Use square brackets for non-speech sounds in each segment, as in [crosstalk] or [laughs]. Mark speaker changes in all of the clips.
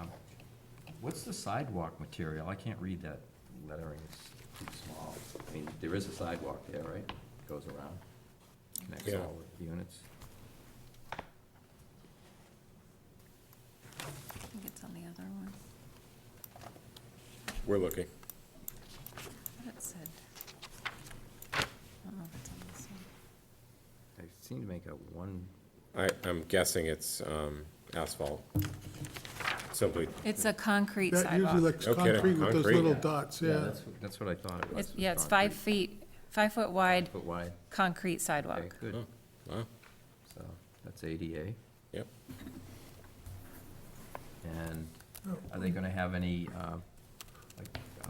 Speaker 1: Um, What's the sidewalk material? I can't read that lettering, it's too small. I mean, there is a sidewalk there, right? Goes around, connects
Speaker 2: Yeah.
Speaker 1: all the units.
Speaker 3: I think it's on the other one.
Speaker 2: We're looking.
Speaker 3: What it said. I don't know if it's on this one.
Speaker 1: I seem to make out one,
Speaker 2: I, I'm guessing it's um, asphalt. Simply,
Speaker 3: It's a concrete
Speaker 4: That usually
Speaker 3: sidewalk.
Speaker 4: looks
Speaker 2: No kidding,
Speaker 4: concrete with those
Speaker 2: concrete.
Speaker 4: little
Speaker 2: Yeah.
Speaker 4: dots,
Speaker 1: yeah,
Speaker 4: yeah.
Speaker 1: that's, that's what I thought it was.
Speaker 3: It's- Yeah, it's five feet, five foot wide,
Speaker 1: But wide,
Speaker 3: concrete
Speaker 1: okay,
Speaker 3: sidewalk.
Speaker 1: good,
Speaker 2: wow,
Speaker 1: so that's ADA.
Speaker 2: yep.
Speaker 1: And are they gonna have any, uh, like, uh,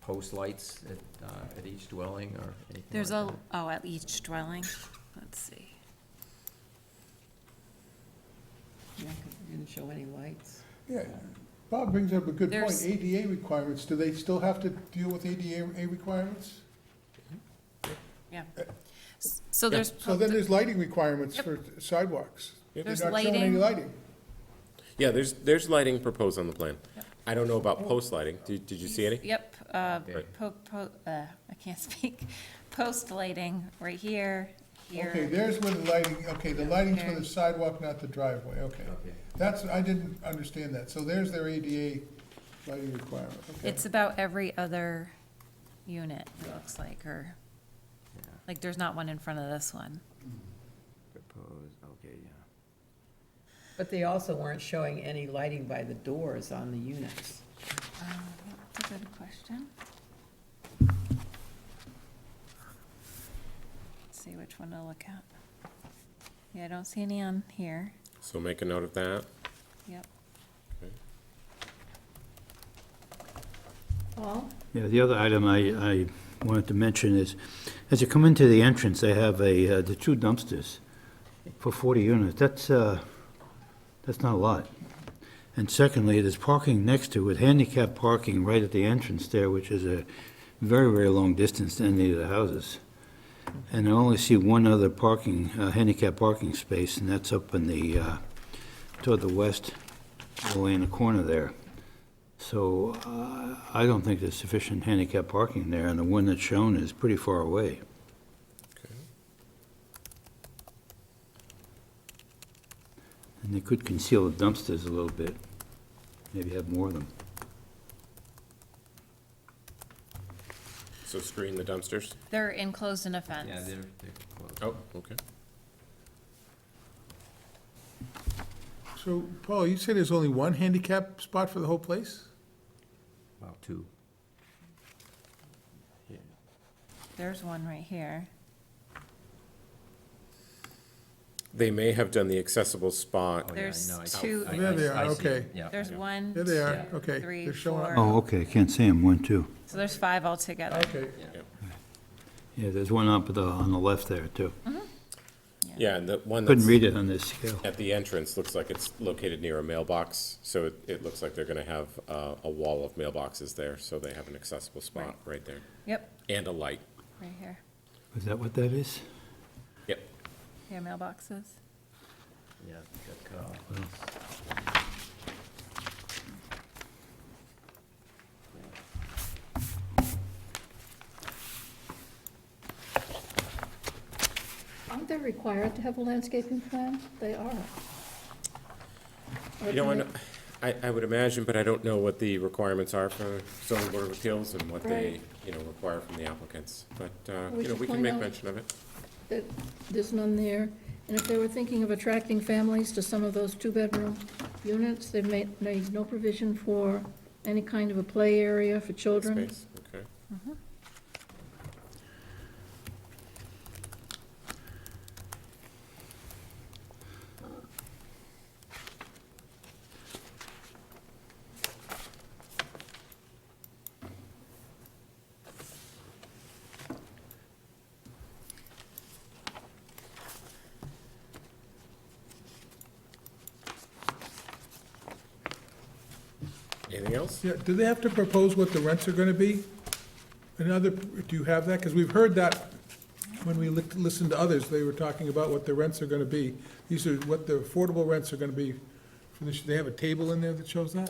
Speaker 1: post lights at, uh, at each dwelling or anything like
Speaker 3: There's a,
Speaker 1: that?
Speaker 3: oh, at each dwelling, let's see.
Speaker 5: Yeah, 'cause you didn't show any lights.
Speaker 4: Yeah, Bob brings up a good point,
Speaker 3: There's-
Speaker 4: ADA requirements, do they still have to deal with ADA requirements?
Speaker 3: Yeah. S- So there's,
Speaker 4: Uh, So then there's lighting requirements
Speaker 3: Yep.
Speaker 4: for sidewalks. They're
Speaker 3: There's
Speaker 4: not showing any
Speaker 3: lighting.
Speaker 4: lighting.
Speaker 2: Yeah, there's, there's lighting proposed on the plan. I don't know about post lighting. Did, did you see any?
Speaker 3: yep, uh,
Speaker 1: Right.
Speaker 3: po, po, uh, I can't [laughs] speak. Post lighting right here,
Speaker 4: Okay,
Speaker 3: here.
Speaker 4: there's where the lighting, okay, the lighting's for
Speaker 3: There.
Speaker 4: the sidewalk, not the driveway, okay.
Speaker 1: Okay.
Speaker 4: That's, I didn't understand that, so there's their ADA lighting requirement, okay.
Speaker 3: It's about every other unit, it looks like, or,
Speaker 1: Yeah,
Speaker 3: like, there's not one in front of this one.
Speaker 1: propose, okay, yeah.
Speaker 5: But they also weren't showing any lighting by the doors on the units.
Speaker 3: Um, That's a good question. Let's See which one to look at. Yeah, I don't see any on here.
Speaker 2: So make a note of that.
Speaker 3: Yep.
Speaker 5: Well,
Speaker 6: Yeah, the other item I, I wanted to mention is, as you come into the entrance, they have a, uh, the two dumpsters for 40 units. That's, uh, that's not a lot. And secondly, there's parking next to it, handicap parking right at the entrance there, which is a very, very long distance to any of the houses. And I only see one other parking, uh, handicap parking space, and that's up in the, uh, toward the west, way in the corner there. So uh, I don't think there's sufficient handicap parking there, and the one that's shown is pretty far away. And they could conceal the dumpsters a little bit, maybe have more of them.
Speaker 2: So screen the dumpsters.
Speaker 3: They're enclosed in a fence.
Speaker 1: Yeah, they're, they're close.
Speaker 2: Oh, okay.
Speaker 4: So, Paul, you say there's only one handicap spot for the whole place?
Speaker 1: About two. Yeah.
Speaker 3: There's one right here.
Speaker 2: They may have done the accessible spot.
Speaker 1: Oh, yeah,
Speaker 3: There's
Speaker 1: no, I-
Speaker 3: two-
Speaker 1: I- I-
Speaker 4: There they are,
Speaker 1: I see it,
Speaker 4: okay.
Speaker 1: Yeah.
Speaker 3: There's one,
Speaker 4: There they are,
Speaker 3: two,
Speaker 4: okay,
Speaker 3: three,
Speaker 4: they're showing up. Oh.
Speaker 3: four.
Speaker 6: Oh, okay, I can't see them, one, two.
Speaker 1: Oh.
Speaker 3: So there's five altogether.
Speaker 4: Okay.
Speaker 6: Yeah, there's one up the, on the left there, too.
Speaker 2: Yeah, and the one that's.
Speaker 6: Couldn't read it on this scale.
Speaker 2: At the entrance, looks like it's located near a mailbox, so it, it looks like they're gonna have uh, a wall of mailboxes there, so they have an accessible spot right there,
Speaker 3: Yep,
Speaker 2: and a light.
Speaker 3: right here.
Speaker 6: Is that what that is?
Speaker 2: Yep.
Speaker 3: Yeah, mailboxes.
Speaker 1: Yeah, that cut off.
Speaker 7: Aren't they required to have a landscaping plan? They are. Or
Speaker 2: You know,
Speaker 7: do
Speaker 2: I
Speaker 7: they-
Speaker 2: know- I, I would imagine, but I don't know what the requirements are for zoning board of appeals and what they,
Speaker 7: Right.
Speaker 2: you know, require from the applicants. But, uh,
Speaker 7: We
Speaker 2: you know,
Speaker 7: should
Speaker 2: we can
Speaker 7: find
Speaker 2: make
Speaker 7: out.
Speaker 2: mention of it.
Speaker 7: that There's none there. And if they were thinking of attracting families to some of those two-bedroom units, they made, made no provision for any kind of a play area for children.
Speaker 2: Space, okay. Anything else?
Speaker 4: Yeah, do they have to propose what the rents are gonna be? Another, do you have that? Because we've heard that when we lit- listened to others, they were talking about what the rents are gonna be. These are what the affordable rents are gonna be. for this- They have a table in there that shows that?